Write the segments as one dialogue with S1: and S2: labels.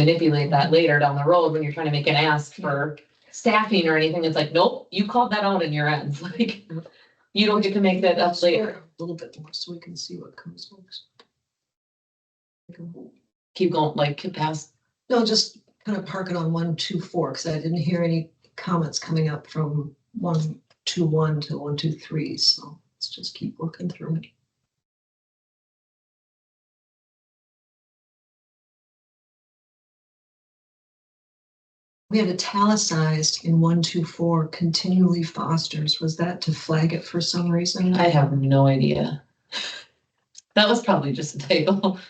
S1: manipulate that later down the road when you're trying to make an ask for staffing or anything. It's like, nope, you called that out in your ends, like. You don't get to make that up later.
S2: A little bit more so we can see what comes next.
S1: Keep going, like, keep past.
S2: No, just kind of park it on one, two, four, because I didn't hear any comments coming up from one, two, one to one, two, three, so let's just keep working through it. We had italicized in one, two, four continually fosters. Was that to flag it for some reason?
S1: I have no idea. That was probably just a title.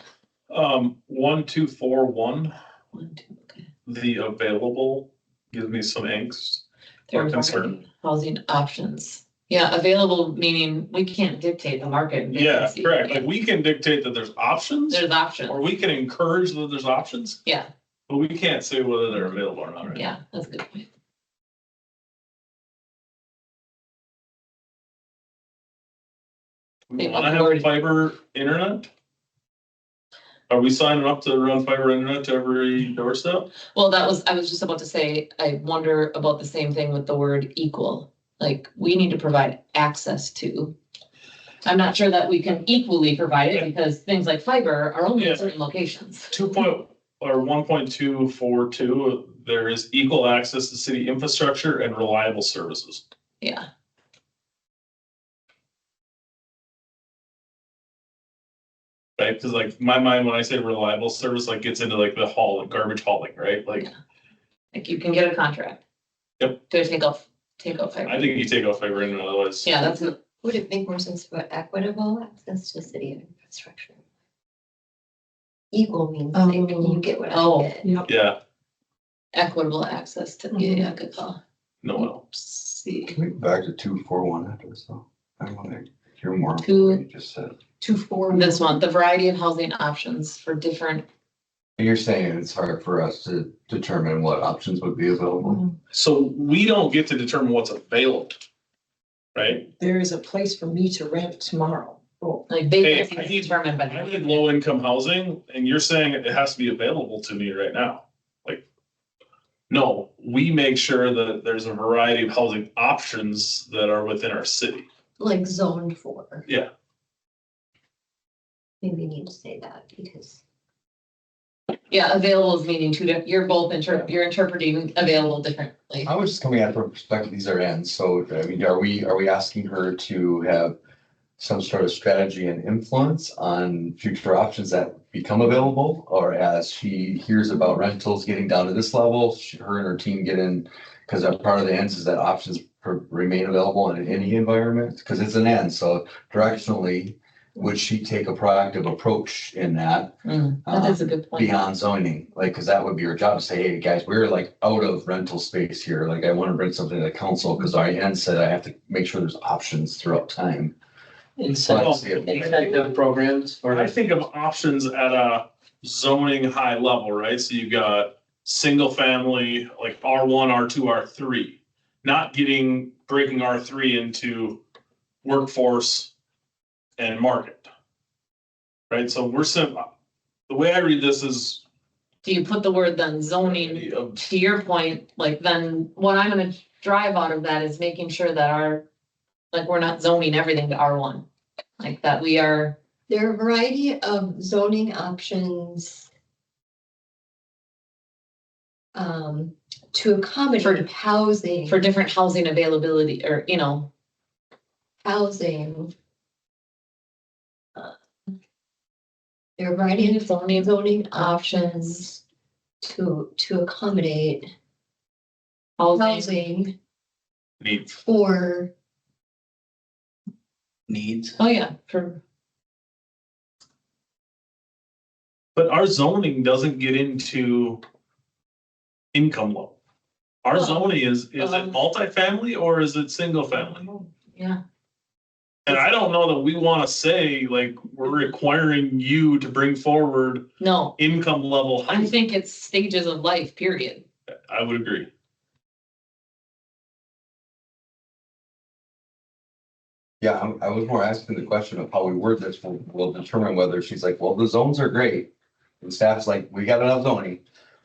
S3: Um, one, two, four, one,
S1: One, two, okay.
S3: the available gives me some angst.
S1: There
S3: Or
S1: are
S3: concern.
S1: housing options. Yeah, available meaning we can't dictate the market.
S3: Yeah,
S1: vacancy.
S3: correct. Like we can dictate that there's options
S1: There's
S3: or
S1: options.
S3: we can encourage that there's options,
S1: Yeah,
S3: but we can't say whether they're available or not. right?
S1: yeah, that's a good point.
S3: We
S1: They
S3: want to
S1: already-
S3: have fiber internet? Are we signing up to run fiber internet to every doorstep?
S1: Well, that was, I was just about to say, I wonder about the same thing with the word equal. Like, we need to provide access to. I'm not sure that we can equally provide it because things like fiber are only
S3: Yeah.
S1: in certain locations.
S3: Two point, or one point two four two, there is equal access to city infrastructure and reliable services.
S1: Yeah,
S3: Right, because like my mind, when I say reliable service, like gets into like the haul, garbage hauling, right? Like,
S1: like you can get a contract.
S3: Yep.
S1: To take off, take off
S3: I
S1: fiber.
S3: think you take off fiber internet otherwise.
S1: Yeah, that's,
S4: Would it make more sense for equitable access to city infrastructure? Equal means like
S2: Oh.
S4: you get what
S1: Oh.
S4: I get.
S2: Yep.
S3: Yeah,
S1: equitable access to, yeah, yeah, good call.
S3: no one else.
S1: See,
S5: Can we go back to two, four, one after this though? I want to hear more of what
S1: Two-
S5: you just said.
S2: Two, four.
S1: this one, the variety of housing options for different,
S5: You're saying it's hard for us to determine what options would be available?
S2: Mhm.
S3: So we don't get to determine what's available. Right?
S2: There is a place for me to rent tomorrow. Oh,
S1: like
S3: Hey,
S1: vacancies
S3: I need-
S1: determined by.
S3: I need low income housing and you're saying it has to be available to me right now, like. No, we make sure that there's a variety of housing options that are within our city.
S4: Like zoned for.
S3: Yeah.
S4: Maybe we need to say that because
S1: Yeah, available is meaning two, di- you're both inter, you're interpreting available differently.
S5: I was just coming at it from a perspective, these are ends, so I mean, are we, are we asking her to have some sort of strategy and influence on future options that become available? Or as she hears about rentals getting down to this level, she- her and her team get in, because part of the ends is that options per- remain available in any environment, because it's an end, so directionally, would she take a proactive approach in that?
S1: Mm, That
S5: Um,
S1: is a good point.
S5: beyond zoning, like, cause that would be your job to say, hey, guys, we're like out of rental space here, like, I wanna bring something to the council, cause our end said I have to make sure there's options throughout time.
S3: Well,
S5: Incentive.
S6: Incentive programs
S3: I
S6: for,
S3: think of options at a zoning high level, right? So you've got single family, like R one, R two, R three. Not getting, breaking R three into workforce and market. Right, so we're sim, the way I read this is.
S1: Do you put the word then zoning, to your point, like then what I'm gonna drive out of that is making sure that our, like, we're not zoning everything to R one. Like that we are,
S4: there are a variety of zoning options. Um, to accommodate housing,
S1: for different housing availability or, you know,
S4: housing. uh, There are a variety of
S1: zoning,
S4: zoning options to, to accommodate
S1: housing,
S4: housing
S3: Needs.
S4: for,
S6: needs.
S1: oh yeah, for,
S3: But our zoning doesn't get into income level. Our
S1: Well,
S3: zoning is, is it
S1: um,
S3: multifamily or is it single family?
S1: yeah,
S3: And I don't know that we want to say like, we're requiring you to bring forward
S1: no,
S3: income level.
S1: I
S3: housing.
S1: think it's stages of life, period.
S3: I would agree.
S5: Yeah, I'm- I was more asking the question of how we word this will, will determine whether she's like, well, the zones are great. And staff's like, we got enough zoning,